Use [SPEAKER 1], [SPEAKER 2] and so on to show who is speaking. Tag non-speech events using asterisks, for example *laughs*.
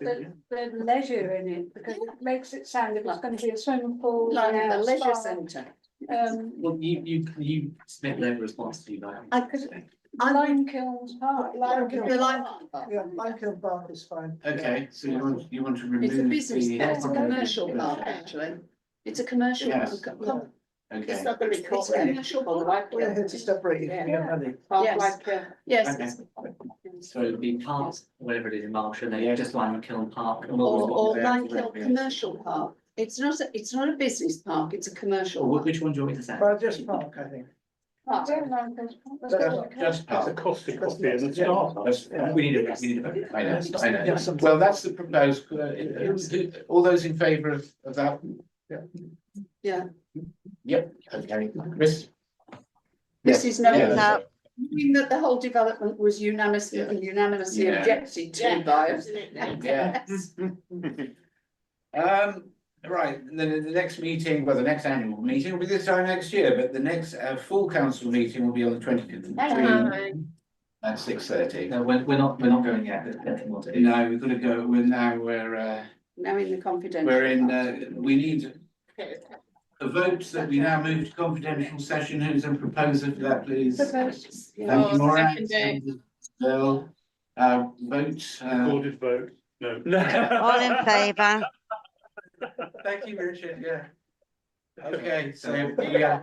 [SPEAKER 1] the, the leisure in it, because it makes it sound it was gonna be a swimming pool.
[SPEAKER 2] Like
[SPEAKER 1] and
[SPEAKER 2] a
[SPEAKER 1] a
[SPEAKER 2] leisure
[SPEAKER 1] spa.
[SPEAKER 2] centre.
[SPEAKER 1] Um,
[SPEAKER 3] Well, you, you, you submit no response to that.
[SPEAKER 2] I
[SPEAKER 1] because
[SPEAKER 2] I'm-
[SPEAKER 1] Lime Kilns Park.
[SPEAKER 2] Like
[SPEAKER 4] Lime
[SPEAKER 2] the
[SPEAKER 4] Kiln.
[SPEAKER 2] Lime-
[SPEAKER 4] Yeah, Michael Park is fine.
[SPEAKER 3] Okay, so you want, you want to remove.
[SPEAKER 2] It's
[SPEAKER 5] Mm,
[SPEAKER 2] a business,
[SPEAKER 3] the-
[SPEAKER 2] park, it's a
[SPEAKER 1] Yeah.
[SPEAKER 2] commercial
[SPEAKER 3] Yeah.
[SPEAKER 2] park, actually. It's a commercial.
[SPEAKER 3] Yes.
[SPEAKER 2] park. Come-
[SPEAKER 3] Okay,
[SPEAKER 2] not gonna be called commercial park.
[SPEAKER 4] We're here to separate if we don't have it.
[SPEAKER 2] Yes. Yes, it's-
[SPEAKER 3] so
[SPEAKER 5] oh,
[SPEAKER 3] it'd be parks, whatever it is in Marshall, they
[SPEAKER 4] Yeah.
[SPEAKER 3] just like Kiln Park. and what was
[SPEAKER 2] or,
[SPEAKER 3] it?
[SPEAKER 2] or
[SPEAKER 3] Yeah.
[SPEAKER 2] like a commercial park. It's not, a- it's not a business park, it's a
[SPEAKER 3] Or
[SPEAKER 2] commercial
[SPEAKER 3] wh-
[SPEAKER 2] park.
[SPEAKER 3] which one do you want me to say?
[SPEAKER 4] But just park, I think.
[SPEAKER 1] I
[SPEAKER 2] park.
[SPEAKER 1] don't like those. That's
[SPEAKER 4] Just-
[SPEAKER 1] all I can-
[SPEAKER 5] Just as a costly copy and a start.
[SPEAKER 3] That's- We need a, we need a vote. I know, I know.
[SPEAKER 4] Just some-
[SPEAKER 5] Well, that's the proposed, uh, who's- who- all those in favour of, of that?
[SPEAKER 2] Yeah.
[SPEAKER 5] Yep, okay, Miss.
[SPEAKER 2] This is no,
[SPEAKER 5] Yeah.
[SPEAKER 2] doubt. meaning that the whole development was unanimously, unanimously
[SPEAKER 5] Yeah.
[SPEAKER 2] objected to by. us. *laughs*
[SPEAKER 5] Yeah. Um, right, the, the next meeting, well, the next annual meeting will be this time next year, but the next, uh, full council meeting will be on the twentieth of
[SPEAKER 2] Hello.
[SPEAKER 5] June. At six thirty.
[SPEAKER 3] No, we're, we're not, we're not going yet, depending what it is.
[SPEAKER 5] No, we've got to go, we're now, we're, uh,
[SPEAKER 2] Now in the confidential.
[SPEAKER 5] we're in,
[SPEAKER 2] part.
[SPEAKER 5] uh, we need a vote that we now move to confidential session. Who's a proposer for that, please?
[SPEAKER 1] Proposed.
[SPEAKER 2] Yeah.
[SPEAKER 5] Thank you, Maura. Bill, uh, vote, uh, uh, All
[SPEAKER 6] Recorded vote, no.
[SPEAKER 7] All in favour?
[SPEAKER 5] thank you, Richard, yeah. Okay, so, yeah.